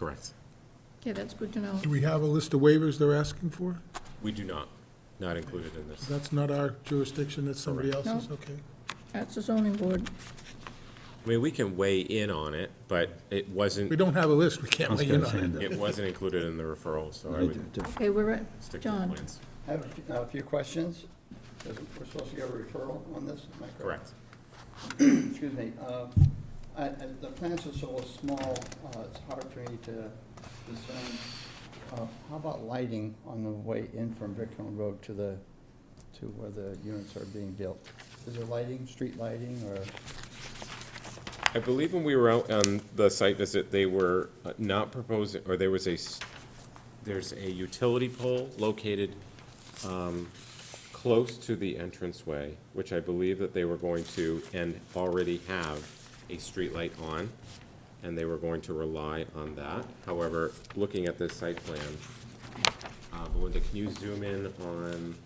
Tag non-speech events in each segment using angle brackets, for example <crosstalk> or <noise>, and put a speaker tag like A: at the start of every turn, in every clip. A: Correct.
B: Okay, that's good to know.
C: Do we have a list of waivers they're asking for?
A: We do not, not included in this.
C: That's not our jurisdiction, that's somebody else's, okay.
B: That's the zoning board.
A: I mean, we can weigh in on it, but it
C: We
A: wasn't,
C: don't have a list, we can't
D: was
C: weigh in
D: gonna say
C: on
D: that.
C: it.
A: it wasn't included in the referral, so I would
B: Okay, we're at,
A: stick to the
B: John,
A: plans.
E: I have a few- uh, a few questions. We're supposed to get a referral on this, am I correct?
A: Correct.
E: <clears throat> Excuse me. Uh, I- I- The plants are so small, uh, it's hard for me to discern. Uh, How about lighting on the way in from Bricktown Road to the, to where the units are being built? Is there lighting, street lighting, or?
A: I believe when we were out on the site visit, they were uh, not proposing, or there was a, s- there's a utility pole located um, close to the entranceway, which I believe that they were going to, and already have a streetlight on, and they were going to rely on that. However, looking at this site plan, uh, Belinda, can you zoom in on,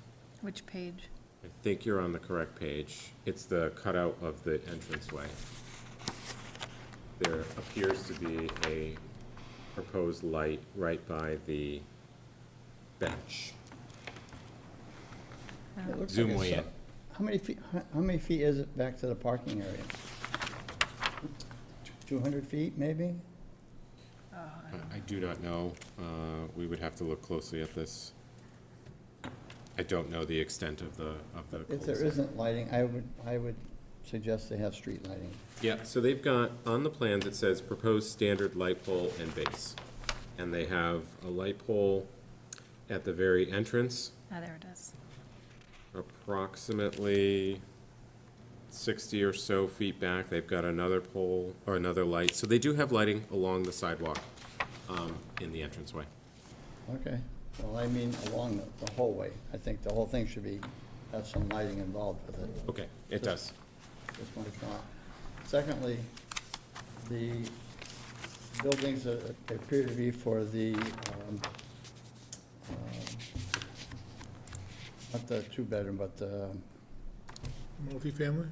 F: Which page?
A: I think you're on the correct page. It's the cutout of the entranceway. There appears to be a proposed light right by the bench.
B: that looks-
A: Zoom way in.
E: How many feet, how- how many feet is it back to the parking area? 200 feet, maybe?
A: I do not know. Uh, We would have to look closely at this. I don't know the extent of the, of the
E: If there
A: cul-de-sac.
E: isn't lighting, I would, I would suggest they have street lighting.
A: Yeah, so they've got, on the plans, it says proposed standard light pole and base. And they have a light pole at the very entrance,
F: Ah, there it is.
A: approximately sixty or so feet back, they've got another pole or another light. So they do have lighting along the sidewalk, um, in the entranceway.
E: Okay, well, I mean along the- the whole way. I think the whole thing should be, have some lighting involved with it.
A: Okay, it does.
E: That's my thought. Secondly, the buildings that appear to be for the, um, um, not the two-bedroom, but the,
C: Multifamily?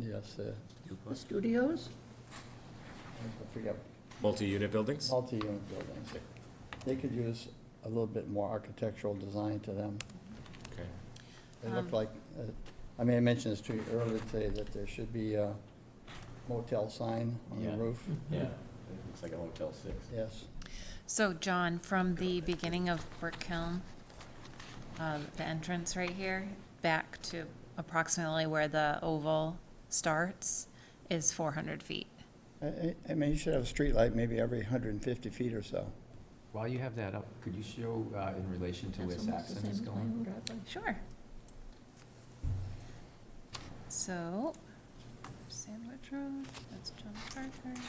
E: yes, the,
B: The studios?
E: I forget,
A: Multi-unit buildings?
E: multi-unit buildings. They could use a little bit more architectural design to them.
A: Okay.
E: They
F: Um.
E: look like, uh, I mean, I mentioned this to you earlier today, that there should be a motel sign on the
G: Yeah.
E: roof.
G: Yeah, looks like a Hotel Six.
E: Yes,
F: So, John, from the beginning of Brick Hill, um, the entrance right here, back to approximately where the oval starts, is four hundred feet.
E: I- I, I mean, you should have a streetlight maybe every hundred and fifty feet or so.
G: While you have that up, could you show uh, in relation to where
B: That's almost the
G: Saxon is
B: same
G: going?
B: plan, driveway.
F: Sure. So, Sandwich Road, that's John Parker.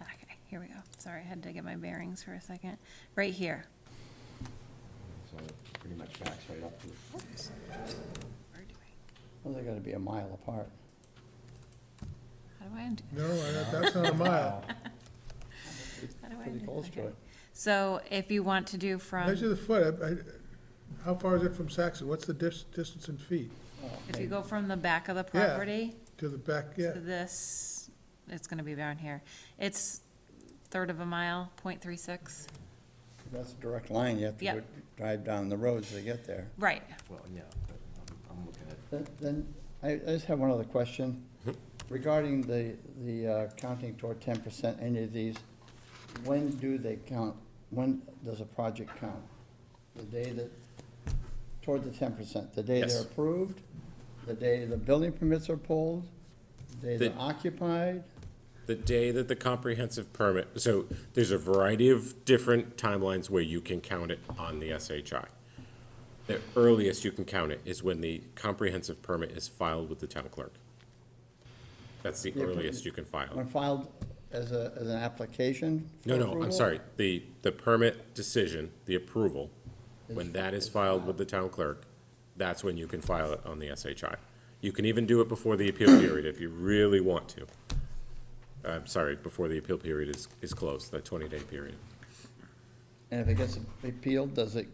F: Ah, Okay, here we go. Sorry, I had to get my bearings for a second. Right here.
G: So it pretty much backs right up to,
F: Oops. Where do I,
E: Well, they gotta be a mile apart.
F: how do I undo?
C: No, I- that's not a mile.
F: How do I
E: Pretty
F: undo-
E: close to
F: okay.
E: it.
F: So if you want to do from,
C: Measure the foot, I- I- how far is it from Saxon? What's the dis- distance in feet
F: if you go from the back of the
C: Yeah.
F: property
C: to the back,
F: to
C: yeah?
F: this, it's gonna be down here. It's third of a mile, point three six.
E: That's a direct line, you have to
F: Yeah.
E: go drive down the roads to get there.
F: Right,
G: well, yeah, but I'm- I'm looking at,
E: Then- Then, I, I just have one other question
A: Mm-hmm.
E: regarding the, the uh, counting toward ten percent, any of these, when do they count? When does a project count? The day that, toward the ten percent, the day
A: Yes.
E: they're approved, the day the building permits are pulled, the day they're
A: The-
E: occupied?
A: The day that the comprehensive permit, so there's a variety of different timelines where you can count it on the SHI. The earliest you can count it is when the comprehensive permit is filed with the town clerk. That's the
E: Yeah, but-
A: earliest you can file.
E: When filed as a, as an application? for
A: No, no, I'm
E: approval?
A: sorry, the, the permit decision, the approval, when that is filed with the town clerk, that's when you can file it on the SHI. You can even do it before the appeal period if you really want to. I'm sorry, before the appeal period is, is closed, the twenty-day period.
E: And if it gets appealed, does it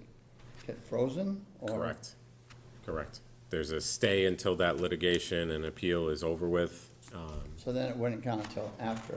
E: get frozen? or-
A: Correct, correct. There's a stay until that litigation and appeal is over with. Um,
E: So then it wouldn't count until after?